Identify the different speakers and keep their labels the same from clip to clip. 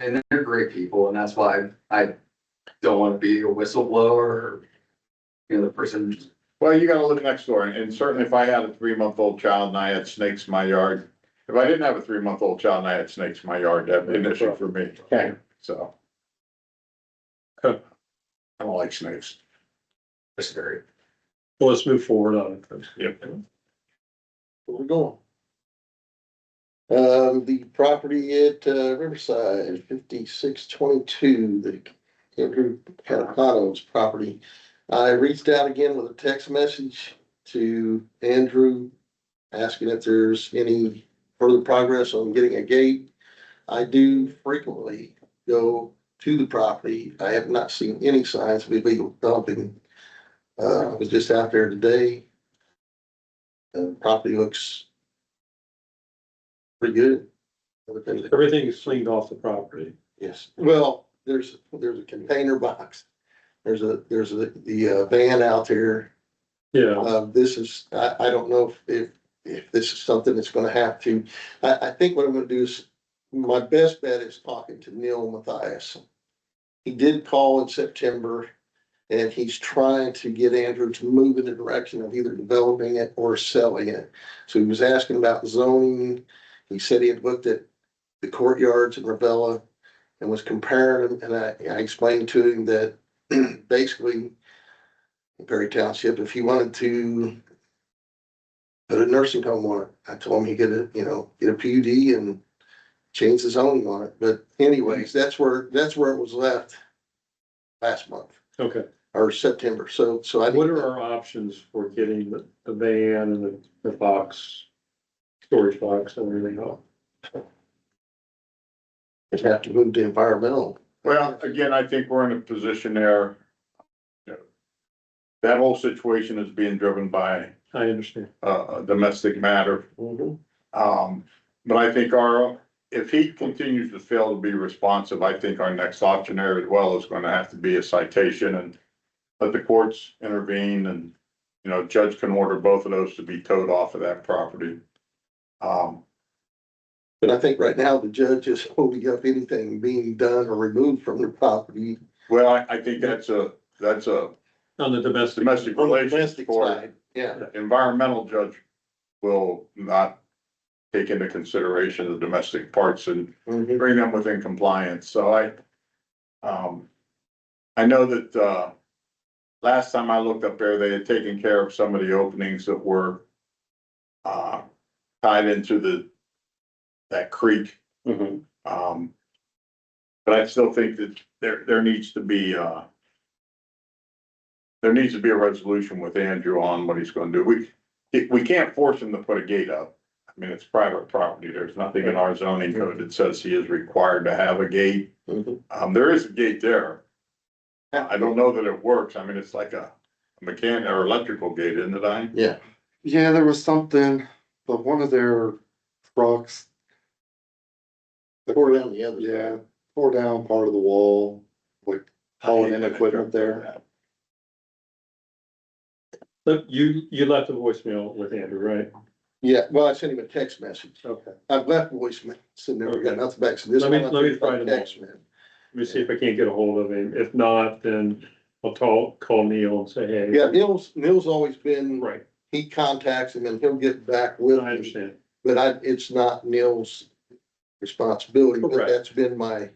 Speaker 1: and they're great people, and that's why I don't want to be a whistleblower. or, You know, the person,
Speaker 2: Well, you gotta live next door, and certainly if I had a three-month-old child and I had snakes in my yard, if I didn't have a three-month-old child and I had snakes in my yard, that'd be an issue for me,
Speaker 3: Okay.
Speaker 2: so. I don't like snakes.
Speaker 1: is very
Speaker 3: Well, let's move forward on it. then.
Speaker 2: Yep.
Speaker 4: Where we going? Um, the property at uh, Riverside, fifty-six twenty-two, the Andrew Catapano's property. I reached out again with a text message to Andrew, asking if there's any further progress on getting a gate. I do frequently go to the property. I have not seen any signs of illegal dumping. Uh, I was just out there today. The property looks pretty good. Everything-
Speaker 3: Everything's cleaned off the property.
Speaker 4: Yes, well, there's, there's a container box. There's a, there's a, the uh, van out there.
Speaker 3: Yeah,
Speaker 4: Uh, this is, I, I don't know if- if, if this is something that's gonna have to. I, I think what I'm gonna do is, my best bet is talking to Neil Mathias. He did call in September and he's trying to get Andrew to move in the direction of either developing it or selling it. So he was asking about zoning. He said he had looked at the courtyards in Ravella and was comparing them. And I, I explained to him that basically Perry Township, if he wanted to put a nursing home on it, I told him he could, you know, get a PUD and change the zoning on it. But anyways, that's where, that's where it was left last month
Speaker 3: okay.
Speaker 4: or September. So, so I.
Speaker 3: What are our options for getting the, the van and the, the box, storage box and everything off?
Speaker 4: Just have to move to environmental.
Speaker 2: Well, again, I think we're in a position there. you know, That whole situation is being driven by
Speaker 3: I understand.
Speaker 2: uh, a domestic matter. Um, but I think our, if he continues to fail to be responsive, I think our next option there as well is gonna have to be a citation and let the courts intervene and, you know, judge can order both of those to be towed off of that property. Um,
Speaker 4: But I think right now the judge is holding up anything being done or removed from the property.
Speaker 2: well, I, I think that's a, that's a
Speaker 3: On the domestic.
Speaker 2: domestic relations
Speaker 4: Domestic
Speaker 2: court.
Speaker 4: side, Yeah,
Speaker 2: Environmental judge will not take into consideration the domestic parts and
Speaker 3: Mm-hmm.
Speaker 4: Mhm.
Speaker 2: bring them within compliance, so I, um, I know that, uh, last time I looked up there, they had taken care of some of the openings that were, uh, tied into the, that creek,
Speaker 3: Mhm.
Speaker 2: um, but I still think that there, there needs to be, uh, there needs to be a resolution with Andrew on what he's gonna do. We, we can't force him to put a gate up. I mean, it's private property. There's nothing in our zoning code that says he is required to have a gate.
Speaker 3: Mm-hmm.
Speaker 4: Mhm.
Speaker 2: Um, there is a gate there. I don't know that it works. I mean, it's like a mechanic or electrical gate, isn't it, I?
Speaker 4: Yeah,
Speaker 5: Yeah, there was something, but one of their trucks,
Speaker 4: pour down the other.
Speaker 5: yeah, tore down part of the wall, like hauling in equipment there.
Speaker 3: Look, you, you left a voicemail with Andrew, right?
Speaker 4: Yeah, well, I sent him a text message.
Speaker 3: Okay.
Speaker 4: I've left voicemail, so never got nothing back. So this
Speaker 3: Let me-
Speaker 4: one I
Speaker 3: let me
Speaker 4: think
Speaker 3: try
Speaker 4: I
Speaker 3: to-
Speaker 4: text him.
Speaker 3: Let me see if I can't get a hold of him. If not, then I'll call, call Neil and say, hey.
Speaker 4: Yeah, Neil's, Neil's always been,
Speaker 3: Right,
Speaker 4: he contacts him and he'll get back
Speaker 3: I
Speaker 4: with him.
Speaker 3: understand.
Speaker 4: But I, it's not Neil's responsibility, but
Speaker 3: Correct.
Speaker 4: that's been my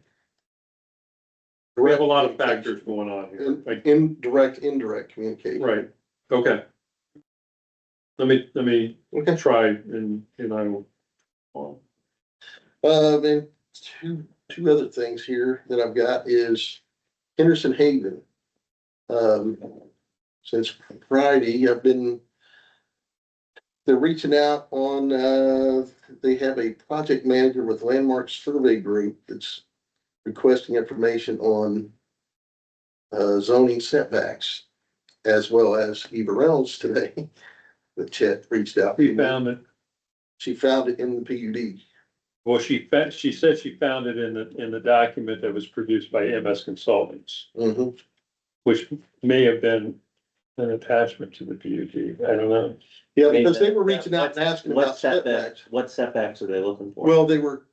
Speaker 3: We have a lot of factors going on here.
Speaker 4: in-
Speaker 3: Like,
Speaker 4: indirect, indirect communication.
Speaker 3: Right, okay. Let me, let me
Speaker 4: Okay.
Speaker 3: try and, and I will. well,
Speaker 4: Um, and two, two other things here that I've got is Henderson Haven. Um, since Friday, I've been. They're reaching out on, uh, they have a project manager with Landmark Survey Group that's requesting information on. Uh, zoning setbacks as well as Eva Reynolds today, that Chet reached out.
Speaker 3: She found it,
Speaker 4: She found it in the PUD.
Speaker 3: well, she found, she said she found it in the, in the document that was produced by MS Consultants,
Speaker 4: Mhm.
Speaker 3: which may have been an attachment to the PUD, I don't know.
Speaker 4: Yeah,
Speaker 6: I mean,
Speaker 4: because they were
Speaker 6: that-
Speaker 4: reaching out and asking
Speaker 6: What
Speaker 4: about
Speaker 6: setbacks,
Speaker 4: setbacks.
Speaker 6: what setbacks are they looking for?
Speaker 4: Well, they were,